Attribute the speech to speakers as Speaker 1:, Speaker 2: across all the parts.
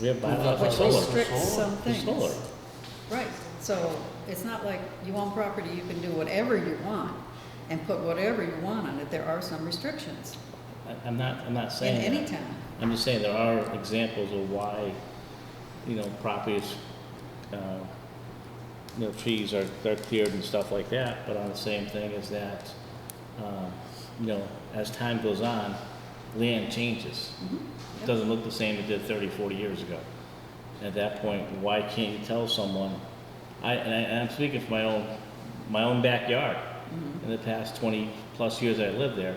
Speaker 1: We have bylaws for
Speaker 2: Which
Speaker 1: solar.
Speaker 2: restricts some
Speaker 1: For
Speaker 2: things.
Speaker 1: solar.
Speaker 2: Right, so it's not like you own property, you can do whatever you want and put whatever you want on it. There are some restrictions
Speaker 1: I- I'm not, I'm not
Speaker 2: in
Speaker 1: saying.
Speaker 2: any
Speaker 1: that.
Speaker 2: town.
Speaker 1: I'm just saying there are examples of why, you know, properties, uh, you know, trees are, they're cleared and stuff like that, but on the same thing is that, um, you know, as time goes on, land changes. It
Speaker 2: Mm-hmm. yep.
Speaker 1: doesn't look the same it did 30, 40 years ago. At that point, why can't you tell someone, I, and I, and I'm speaking for my own, my own backyard. In the past 20-plus years I lived there,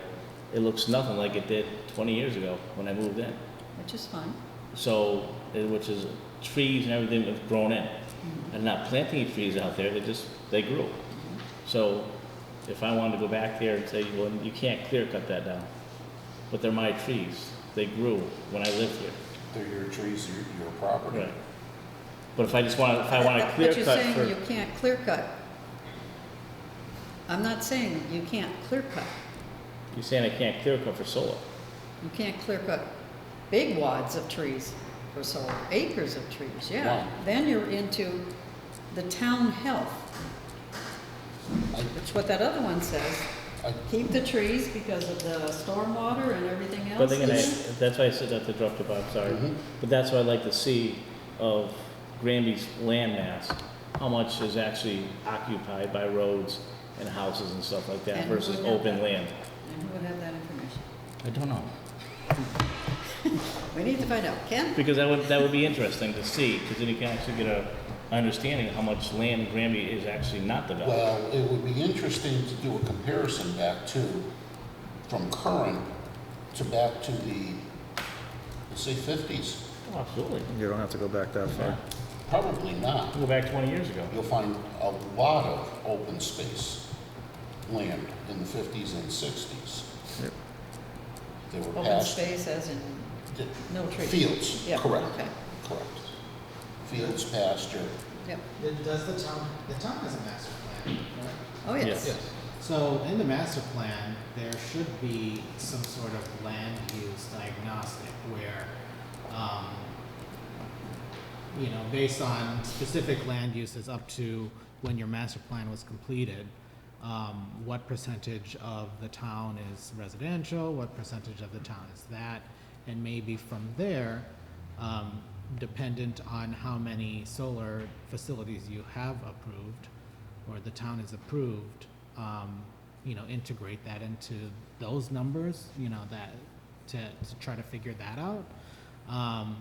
Speaker 1: it looks nothing like it did 20 years ago when I moved in.
Speaker 2: Which is fine.
Speaker 1: So, eh, which is trees and everything that's grown in. I'm not planting any trees out there, they just, they grew. So if I wanted to go back there and say, well, you can't clear cut that down, but they're my trees, they grew when I lived here.
Speaker 3: They're your trees, your, your property.
Speaker 1: Right. But if I just want, to if I want to clear
Speaker 2: But you're
Speaker 1: cut
Speaker 2: saying you
Speaker 1: for,
Speaker 2: can't clear cut. I'm not saying you can't clear cut.
Speaker 1: you're saying I can't clear cut for solar?
Speaker 2: You can't clear cut big wads of trees or so, acres of trees, yeah.
Speaker 3: Wow.
Speaker 2: Then you're into the town health. That's what that other one says.
Speaker 3: I-
Speaker 2: Keep the trees because of the stormwater and everything else.
Speaker 1: But then again,
Speaker 2: It's-
Speaker 1: I- that's why I said that to interrupt you, Bob, sorry.
Speaker 3: Mhm.
Speaker 1: But that's what I'd like to see of Granby's land mass, how much is actually occupied by roads and houses and stuff like that
Speaker 2: And who
Speaker 1: versus
Speaker 2: would have
Speaker 1: open
Speaker 2: that?
Speaker 1: land.
Speaker 2: And who would have that information?
Speaker 3: I don't know.
Speaker 2: We need to find out. Ken?
Speaker 1: Because that would, that would be interesting to see, because then you can actually get a understanding of how much land Granby is actually not developed.
Speaker 3: Well, it would be interesting to do a comparison back to, from current to back to the, let's say fifties.
Speaker 1: Oh, Absolutely.
Speaker 4: You don't have to go back that far.
Speaker 3: Probably not.
Speaker 1: Go back twenty years ago.
Speaker 3: You'll find a lot of open space land in the fifties and sixties.
Speaker 4: Yep.
Speaker 3: They were
Speaker 2: Open
Speaker 3: passed,
Speaker 2: space as in
Speaker 3: di-
Speaker 2: no trees?
Speaker 3: fields,
Speaker 2: Yeah,
Speaker 3: correct,
Speaker 2: okay.
Speaker 3: correct. Fields, pasture,
Speaker 2: Yep.
Speaker 5: It- Does the town, the town has a master plan, right?
Speaker 2: Oh, yes.
Speaker 1: Yes.
Speaker 5: So in the master plan, there should be some sort of land use diagnostic where, um, you know, based on specific land uses up to when your master plan was completed, um, what percentage of the town is residential, what percentage of the town is that? And maybe from there, um, dependent on how many solar facilities you have approved, or the town has approved, um, you know, integrate that into those numbers, you know, that, to, to try to figure that out. Um,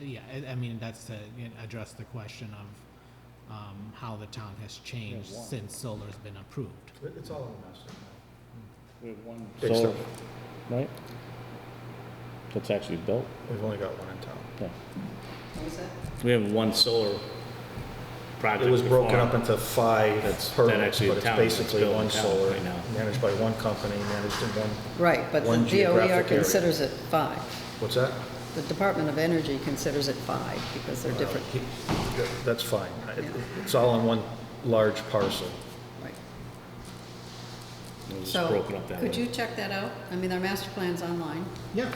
Speaker 5: yeah, I, I mean, that's to you know, address the question of, um, how the town has changed since solar's been approved.
Speaker 4: It's all a mess.
Speaker 1: We have one
Speaker 4: Big
Speaker 1: solar,
Speaker 4: stuff.
Speaker 1: right? That's actually built,
Speaker 4: We've only got one in town.
Speaker 1: yeah.
Speaker 2: What was that?
Speaker 1: We have one solar project.
Speaker 4: It was broken
Speaker 1: performed.
Speaker 4: up into five
Speaker 1: That's- that
Speaker 4: permits,
Speaker 1: actually
Speaker 4: but
Speaker 1: the
Speaker 4: it's
Speaker 1: town that's
Speaker 4: basically
Speaker 1: building
Speaker 4: one
Speaker 1: town
Speaker 4: solar,
Speaker 1: right now.
Speaker 4: managed by one company, managed in one,
Speaker 2: Right, but the
Speaker 4: One geographic
Speaker 2: DOER
Speaker 4: area.
Speaker 2: considers it five.
Speaker 4: what's that?
Speaker 2: The Department of Energy considers it five because they're different.
Speaker 4: Uh, That's fine. It- It's all on one large parcel.
Speaker 2: Right.
Speaker 1: It was
Speaker 2: So,
Speaker 1: broken up that way.
Speaker 2: Could you check that out? I mean, our master plan's online.
Speaker 5: Yeah.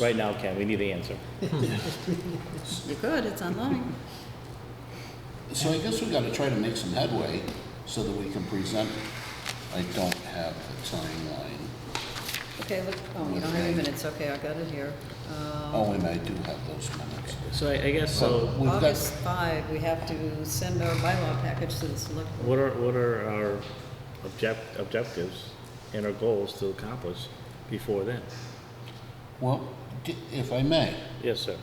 Speaker 1: Right now, Ken, we need the answer.
Speaker 2: You could, it's online.
Speaker 3: So I guess we gotta try to make some headway so that we can present. I don't have the timeline.
Speaker 2: Okay, look, oh, you don't have any minutes, okay, I got it here. Um,
Speaker 3: Oh, and I do have those minutes.
Speaker 1: So I, I guess, so
Speaker 3: We've got-
Speaker 2: August 5, we have to send our bylaw package to the select. board.
Speaker 1: what are, what are our object, objectives and our goals to accomplish before then?
Speaker 3: Well, d- if I may,
Speaker 1: Yes, sir,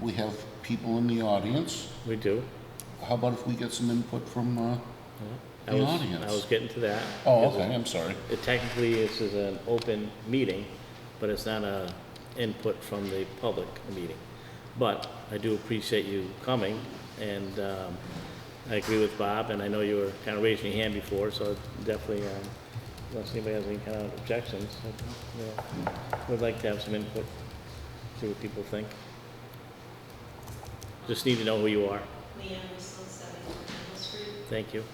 Speaker 3: we have people in the audience.
Speaker 1: we do.
Speaker 3: How about if we get some input from, uh,
Speaker 1: I
Speaker 3: The
Speaker 1: was- I
Speaker 3: audience.
Speaker 1: was getting to that.
Speaker 3: oh, okay, I'm sorry.
Speaker 1: It technically, this is an open meeting, but it's not a input from the public meeting. But I do appreciate you coming, and um, I agree with Bob, and I know you were kind of raising your hand before, so definitely, um, unless anybody has any kind of objections, I- you know, would like to have some input, see what people think. Just need to know who you are.
Speaker 6: Leanne Russell, 7 Maple Street.
Speaker 1: Thank you.